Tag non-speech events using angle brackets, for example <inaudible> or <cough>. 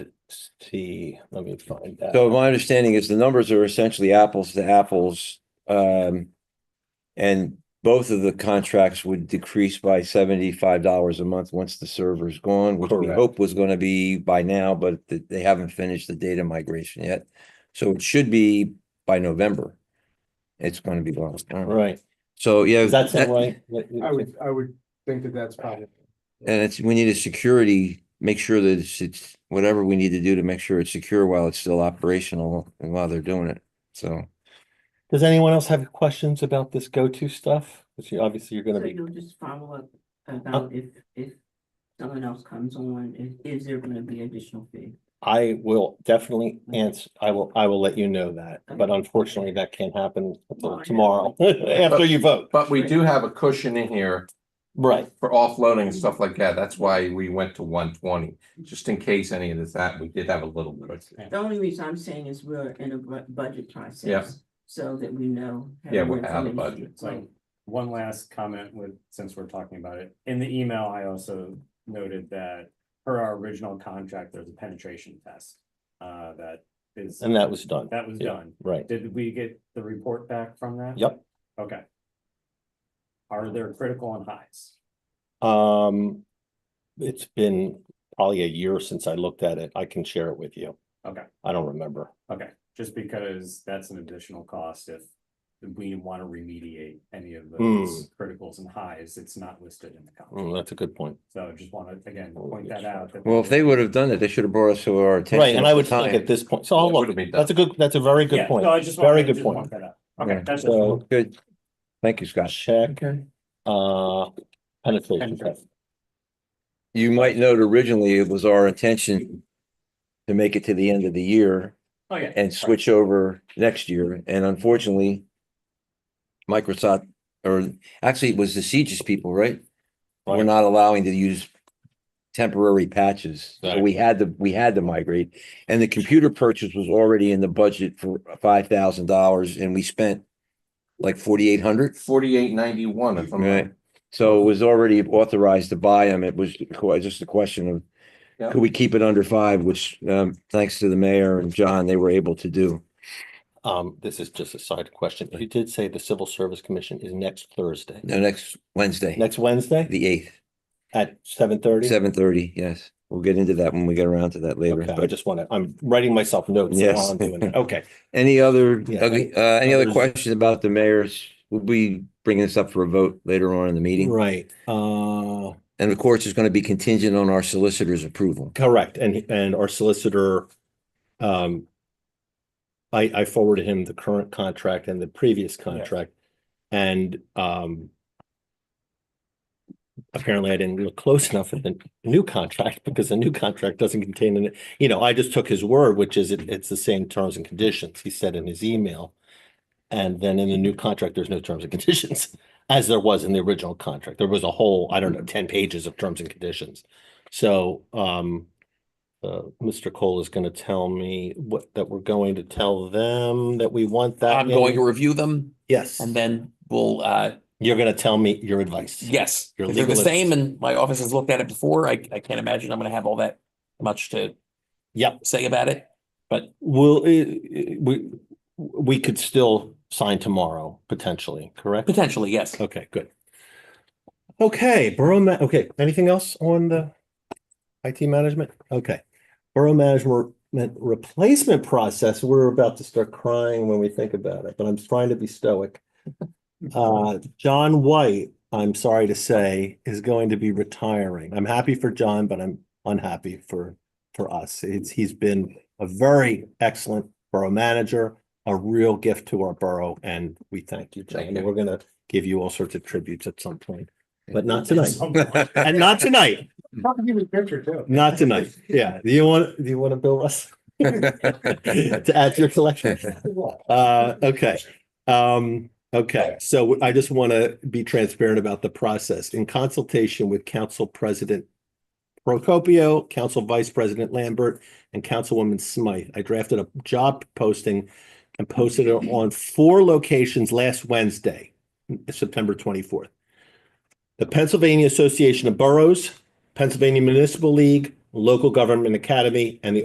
see, let me find that. So my understanding is the numbers are essentially apples to apples. Um, and both of the contracts would decrease by seventy-five dollars a month once the server's gone, which we Correct. hope was gonna be by now, but th- they haven't finished the data migration yet. So it should be by November. It's gonna be long. Right, So, yeah. does that sound that- right? I would, I would think that that's probably. And it's, we need a security, make sure that it's, it's whatever we need to do to make sure it's secure while it's still operational and while they're doing it. So. Does anyone else have questions about this go-to stuff? Which you, obviously you're So gonna be, you'll just follow up Oh. about if, if someone else comes on, is, is there gonna be additional fee? I will definitely answer, I will, I will let you know that, but Mm-hmm. Okay. unfortunately that can't happen Well, I until know. tomorrow, <laughs> after you vote. But we do have a cushion in here Right, for offloading and stuff like that. That's why we went to one twenty, just in case any of this happened. We did have a little bit. The only reason I'm saying is we're in a bu- budget process, so that we know. have Yeah, more we're out of information. budget. So one last comment with, since we're talking about it, in the email, I also noted that per our original contract, there's a penetration test. Uh, that is. and that was done, That was Yeah. done. right. Did we get the report back from that? Yep. Okay. Are there critical and highs? Um, it's been probably a year since I looked at it. I can share it with you. Okay. I don't remember. Okay, just because that's an additional cost if we want to remediate any of those criticals and highs, it's not listed in the Mm, contract. that's a good point. So just want to, again, Oh, point yes. that out. that Well, if they were- would have done it, they should have brought us to our attention. Right, and I at the would think time. at this point, so I'll It would look, have been done. that's a good, that's a very Yeah, good point. no, I just Very wanted- good just want point. that out. Yeah. Okay, that's it. So- Good. Thank you, Scott. Check, uh, penetration Penetration. test. You might note originally it was our intention to make it to the end of the year Oh, yeah. and switch over next year. And unfortunately, Microsoft, or actually it was the Siege's people, right? We're Right. not allowing to use temporary patches. So Right. we had to, we had to migrate. And the computer purchase was already in the budget for five thousand dollars and we spent like forty-eight hundred. Forty-eight ninety-one, if I'm Right. right. So it was already authorized to buy them. It was qu- just a question of, Yeah. could we keep it under five, which, um, thanks to the mayor and John, they were able to do. Um, this is just a side question. You did say the Civil Service Commission is next Thursday, No, next Wednesday, next Wednesday the eighth, at seven thirty? seven thirty, yes. We'll get into that when we get around to that later. Okay, I But just wanna, I'm writing myself notes Yes. while I'm doing it. Okay, any other, Yeah. uh, any other Others- questions about the mayor's? We'll be bringing this up for a vote later on in the meeting. right, uh, And of course, it's going to be contingent on our <laughs> solicitor's approval. <laughs> correct, and, and our solicitor, um, I, I forwarded him the current contract and the previous contract, and, um, apparently I didn't look close <laughs> enough at the new contract, because the new contract doesn't contain, an- you know, I just took his word, which is it, it's the same terms and conditions, he said in his email. And then in the new contract, there's no terms and <laughs> conditions, as there was in the original contract, there was a whole, I Mm-hmm. don't know, ten pages of terms and conditions. So, um, uh, Mr. Cole is gonna tell me what, that we're going to tell them that we want that. Uh, I'm in- going to review them Yes, and then we'll, uh, you're gonna tell me your advice. yes, Your if they're the legal same advice. and my office has looked at it before. I, I can't imagine I'm gonna have all that much to Yep. say about it. Will, eh, eh, we, we could still sign tomorrow, potentially, correct? Potentially, yes. Okay, good. Okay, borough ma- okay, anything else on the IT management? Okay. Borough management replacement process, we're about to start crying when we think about it, but I'm trying to be <laughs> stoic. Uh, John White, I'm sorry to say, is going to be retiring. I'm happy for John, but I'm unhappy for, for us. It's, he's been a very excellent borough manager, a real gift to our borough, and we thank you, John. Thank you. We're gonna give you all sorts of tributes at some point, but not At tonight. some point. And not tonight, Probably give a picture too. not tonight. Yeah, do you want, do you want to bill us <laughs> to add to your collection? Uh, okay. Um, okay, so I just want to be transparent about the process. In consultation with Council President Procopio, Council Vice President Lambert, and Councilwoman Smythe, I drafted a job posting and posted it on four locations last Wednesday, September twenty-fourth. The Pennsylvania Association of Boroughs, Pennsylvania Municipal League, Local Government Academy, and the